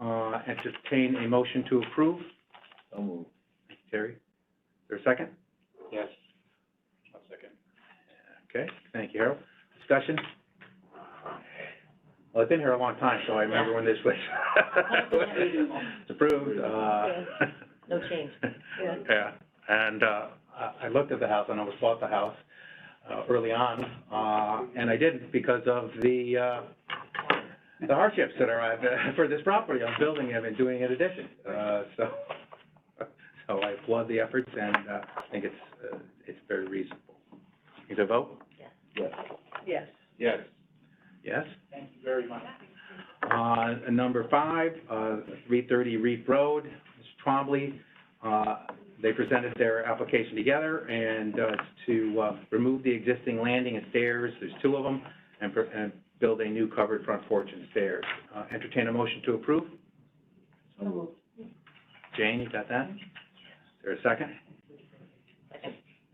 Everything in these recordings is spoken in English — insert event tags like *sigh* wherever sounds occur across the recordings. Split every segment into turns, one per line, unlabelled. Uh, entertain a motion to approve.
So moved.
Terry, is there a second?
Yes. One second.
Okay, thank you, Harold. Discussion? Well, I've been here a long time, so I remember when this was. It's Approved, uh.
No change. Yeah.
*laughs* Yeah, and, uh, I, I looked at the house, and I almost bought the house, uh, early on, uh, and I didn't because of the, uh, the hardships that are, uh, *laughs* for this property, I'm building it and doing an addition, uh, so, *laughs* so I applaud the efforts, and, uh, I think it's, uh, it's very reasonable. Is there a vote?
Yes.
Yes.
Yes.
Yes.
Thank you very much.
Uh, and number five, uh, three thirty Reef Road, Mr. Trombley, uh, they presented their application together and, uh, it's to, uh, remove the existing landing and stairs, there's two of them, and, per- and build a new covered front porch and stairs. Uh, entertain a motion to approve?
So moved.
Jane, you got that? Is there a second?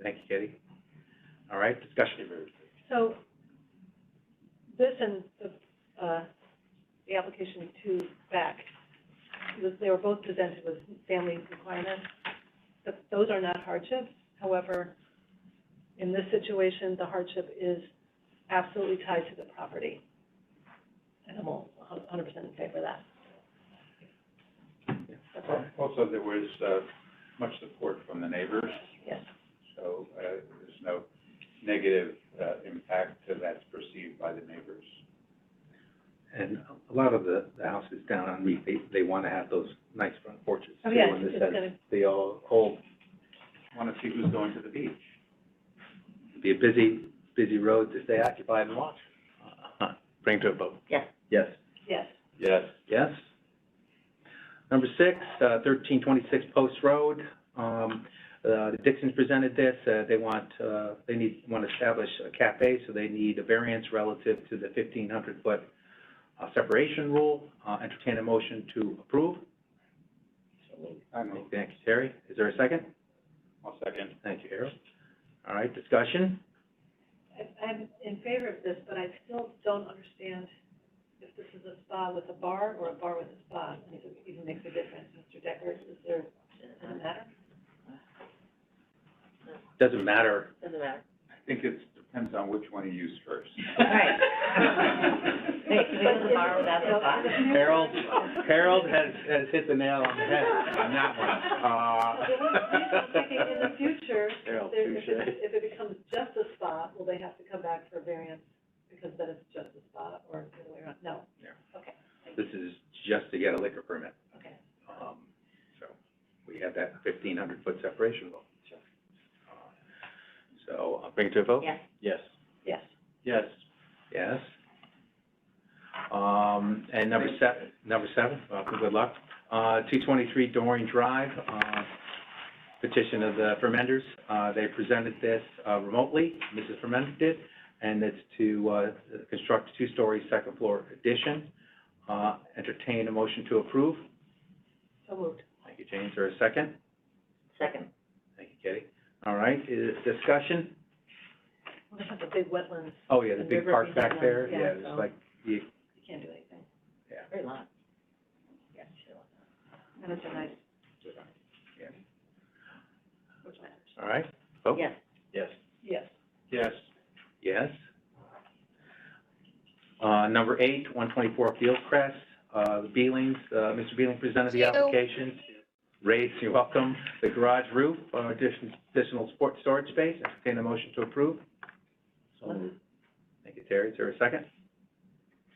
Thank you, Katie. All right, discussion.
So this and the, uh, the application two back, was- they were both presented with family requirements. But those are not hardships. However, in this situation, the hardship is absolutely tied to the property. And I'm all a hun- hundred percent in favor of that. That's all.
Also, there was, uh, much support from the neighbors,
Yes.
so, uh, there's no negative, uh, impact to that's perceived by the neighbors.
And a lot of the, the houses down on Reef, they, they wanna have those nice front porches.
Oh,
too,
yeah,
and this
it's
has
gonna-
The old, old
Want to see who's going to the beach.
be a busy, busy road to stay occupied and watch. Uh, Bring to a vote.
Yes.
Yes.
Yes.
Yes.
Yes. Number six, uh, thirteen twenty-six Post Road. Um, uh, the Dixons presented this, uh, they want, uh, they need, want to establish a cafe, so they need a variance relative to the fifteen hundred foot, uh, separation rule. Uh, entertain a motion to approve.
I
Thank
move.
you, Terry. Is there a second?
I'll second.
Thank you, Harold. All right, discussion?
I- I'm in favor of this, but I still don't understand if this is a spa with a bar or a bar with a spa, and if it even makes a difference, Mr. Decker, is there, does it matter?
Doesn't matter.
Doesn't matter.
I think it depends on which one you use first.
Right.
Hey,
can we have the bar without the spa?
*laughs* Harold, Harold has, has hit the nail on the head on that
I'm thinking in the
one. Uh, *laughs*
future, if
Harold,
there, if it,
touche.
if it becomes just a spa, will they have to come back for a variance because then it's just a spa, or the other way around? No.
This is just to get a liquor permit.
Okay.
Um, so we have that fifteen hundred foot separation rule. Uh, So I'll bring it to a vote?
Yes.
Yes.
Yes.
Yes.
Yes. Um, and number seven, number seven, uh, good luck, uh, two twenty-three Dorian Drive, uh, petition of the Fermenders. Uh, they presented this uh, remotely, Mrs. Fermender did, and it's to, uh, construct a two-story second floor addition. Uh, entertain a motion to approve.
So moved.
Thank you, James. Or a second?
Second.
Thank you, Katie. All right, is discussion?
Well, they have the big wetlands,
Oh, yeah, the
The
big
river
park back
behind
there,
them, yeah,
yeah, it's
so-
like, you,
you can't do anything.
yeah.
Very long. Yeah, sure. And it's a nice.
Yeah.
Which matters.
All right, vote?
Yes.
Yes.
Yes.
Yes.
Yes. Uh, number eight, one twenty-four Fieldcrest, uh, the Beelings, uh, Mr. Beeling presented the application. Raise, you're welcome, the garage roof, uh, addition- additional sport storage space, entertain a motion to approve. Thank you, Terry, is there a second?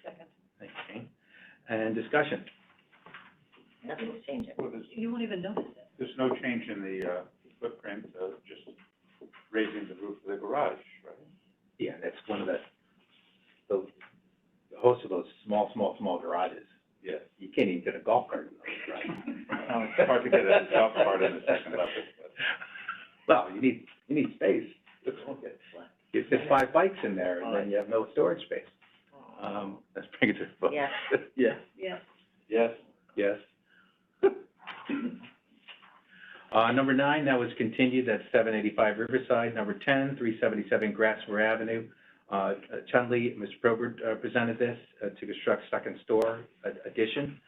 Second.
Thank you, Jane. And discussion,
Nothing's changing.
Well, there's,
You won't even notice it.
there's no change in the, uh, footprint, uh, just raising the roof of the garage, right?
yeah, that's one of the, the, the host of those small, small, small garages,
Yes.
you can't even get a golf cart in those, right?
Well, It's hard to get a golf cart in the second level, but.
Well, you need, you need space. You fit five bikes in there, and then you have no storage space. Um, let's bring it to a vote.
Yeah.
Yes.
Yes.
Yes.
*laughs* Yes. *laughs* Uh, number nine, that was continued, that's seven eighty-five Riverside. Number ten, three seventy-seven Grassmere Avenue. Uh, Chun Li, Mr. Probert, uh, presented this, uh, to construct second store ad- addition.